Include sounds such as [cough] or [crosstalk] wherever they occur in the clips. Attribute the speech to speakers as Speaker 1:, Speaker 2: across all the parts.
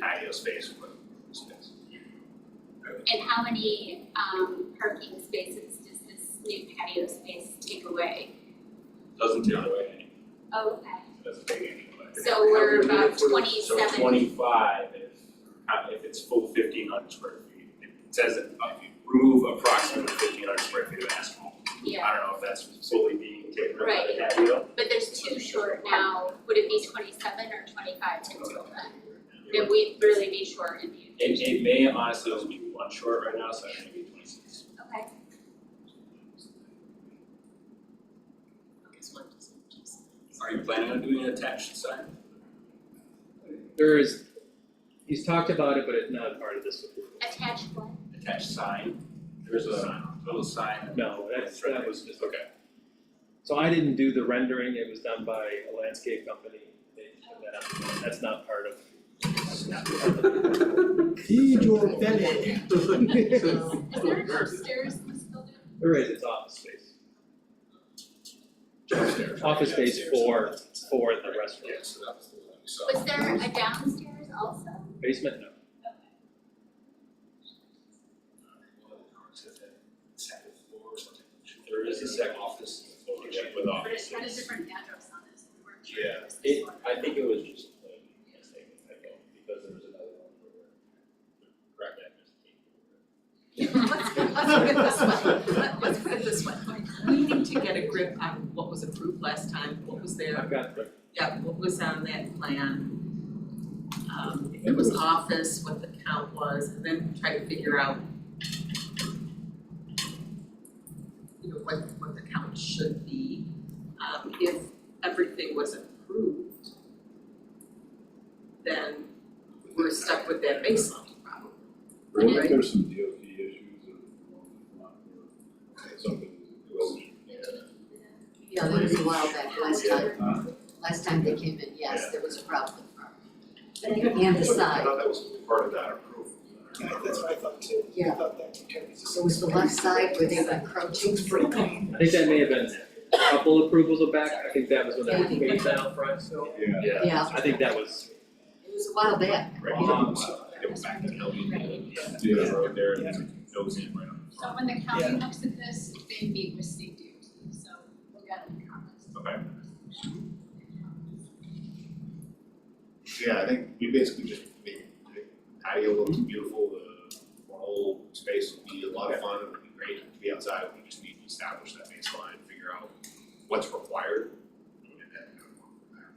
Speaker 1: patio space with space.
Speaker 2: And how many um parking spaces does this new patio space take away?
Speaker 1: Doesn't take away any,
Speaker 2: Okay,
Speaker 1: doesn't take any away.
Speaker 2: so we're
Speaker 1: How many
Speaker 2: about
Speaker 1: square- So
Speaker 2: 27.
Speaker 1: twenty-five if, uh, if it's full fifteen hundred square feet. It says that if you remove approximately fifteen hundred square feet of asphalt.
Speaker 2: yeah,
Speaker 1: I don't know if that's solely being taken up by
Speaker 2: Right.
Speaker 1: the patio.
Speaker 2: but there's two short now, would it be twenty-seven or twenty-five to total then? Then we'd really be short in the
Speaker 1: It, it may honestly also be one short right now, so I think it'd be twenty-six.
Speaker 2: Okay,
Speaker 3: Are you planning on doing an attached sign?
Speaker 4: There is, he's talked about it, but it's not part of this approval.
Speaker 2: attached one,
Speaker 3: Attached sign? There's a little sign.
Speaker 4: No, that's, that was just, okay. So I didn't do the rendering, it was done by a landscape company, they put that up, that's not part of. that's not part of-
Speaker 5: Feed your belly.
Speaker 2: is there an upstairs in this building?
Speaker 4: There is, it's office space,
Speaker 3: Upstairs.
Speaker 4: office space for, for the
Speaker 3: Yeah,
Speaker 4: restaurant,
Speaker 3: so that was the one we saw.
Speaker 2: Was there a downstairs also?
Speaker 4: basement, no.
Speaker 3: Second floor or something.
Speaker 1: There is a second office floor check with
Speaker 2: But
Speaker 1: office.
Speaker 2: it's got a different address on this, we weren't sure if it was this
Speaker 1: It,
Speaker 2: one.
Speaker 1: I think it was just a mistake, I think, because there was another one where. Correct that mistake.
Speaker 6: Let's, let's put it this way, Let- let's put it this way, we need to get a grip on what was approved last time, what was there,
Speaker 4: I've got, the-
Speaker 6: yeah, what was on that plan. Um, if it was office, what the count was, and then try to figure out you know, what, what the count should be, um, if everything was approved, then we're stuck with that baseline problem.
Speaker 7: Well, if there's some DOT issues or um, something.
Speaker 8: Yeah, that was a while back, last time,
Speaker 7: Huh?
Speaker 8: last time they came in, yes, there was a problem.
Speaker 5: And
Speaker 8: And the
Speaker 2: uh,
Speaker 8: side,
Speaker 1: that was part of that approval.
Speaker 5: That's what I thought too.
Speaker 8: Yeah.
Speaker 5: I thought that would carry us.
Speaker 8: it was the left side where they were encroaching.
Speaker 4: I think that may have been a couple approvals of back, I think that was when
Speaker 8: Yeah,
Speaker 4: that
Speaker 8: I
Speaker 4: was
Speaker 8: think
Speaker 4: phased out front, so.
Speaker 7: Yeah.
Speaker 8: Yeah,
Speaker 4: I think that was
Speaker 8: it was a while back.
Speaker 9: Um,
Speaker 4: long,
Speaker 1: It was back to E Kelly, yeah,
Speaker 7: Yeah.
Speaker 1: that road there, and then it
Speaker 9: E
Speaker 1: goes in right on the
Speaker 10: So
Speaker 1: front.
Speaker 10: when the county looks at this, they meet with state DOT, so we'll get any comments.
Speaker 1: Okay.
Speaker 9: Yeah, I think we basically just made the patio look beautiful, the the whole space would be a lot of fun, it would be great to be outside, we just need to establish that baseline, figure out what's required. and then go from there.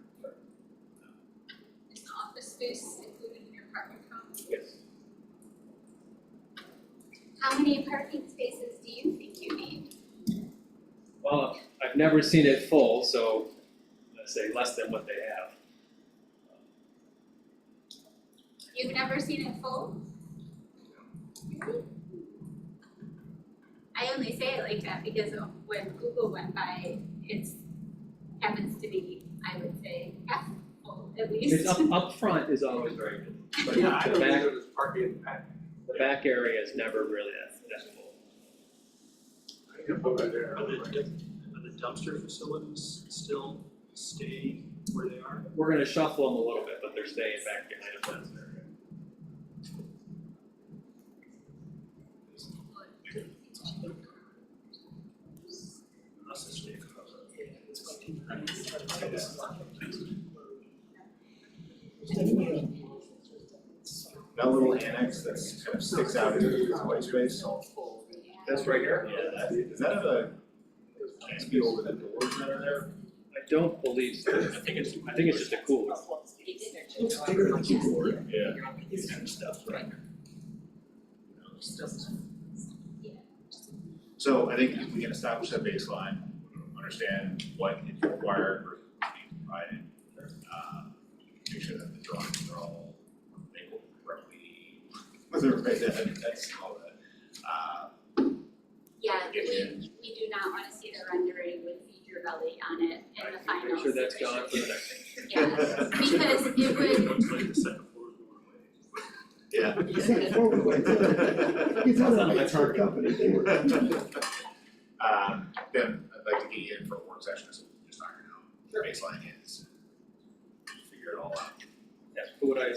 Speaker 10: Is the office space included in your parking count?
Speaker 4: yes.
Speaker 2: How many parking spaces do you think you need?
Speaker 4: Well, I've never seen it full, so let's say less than what they have.
Speaker 2: You've never seen it full? Really? I only say it like that because when Google went by, it's happens to be, I would say, half [laughs] full at least.
Speaker 4: It's up, up front is always very good, but
Speaker 3: Yeah, I
Speaker 4: the
Speaker 3: don't think
Speaker 4: back,
Speaker 3: there was parking in the back.
Speaker 4: the back area is never really that, that full.
Speaker 3: Over there.
Speaker 4: We're gonna shuffle them a little bit, but they're staying back behind the fence area.
Speaker 3: Unless it's Jacob.
Speaker 9: That little annex that's kind of sticks out into the white space,
Speaker 1: That's right here?
Speaker 9: yeah, that, is that a, can't be over the doors that are there?
Speaker 4: I don't believe so,
Speaker 1: I think it's,
Speaker 4: I think it's just a cooler.
Speaker 5: Looks bigger than you were.
Speaker 1: yeah.
Speaker 6: Just doesn't
Speaker 9: So I think if we can establish that baseline, understand what is required versus what's being provided. uh, Make sure that the drawings are all labeled correctly. Whether right that, that's all that. Uh,
Speaker 2: Yeah,
Speaker 9: Yeah.
Speaker 2: we, we do not wanna see the rendering with Feed Your Belly on it in the final.
Speaker 4: Make sure that's
Speaker 2: iteration.
Speaker 4: gone for the next.
Speaker 2: Yeah, because
Speaker 9: [laughs]
Speaker 2: it would,
Speaker 1: Looks like the second floor is going away.
Speaker 9: Yeah.
Speaker 5: It's like a forward way. It's not like it's our company, they were.
Speaker 9: Um, then I'd like to get you in for a work session, so we can just iron out what the baseline is. Figure it all out.
Speaker 4: That's what I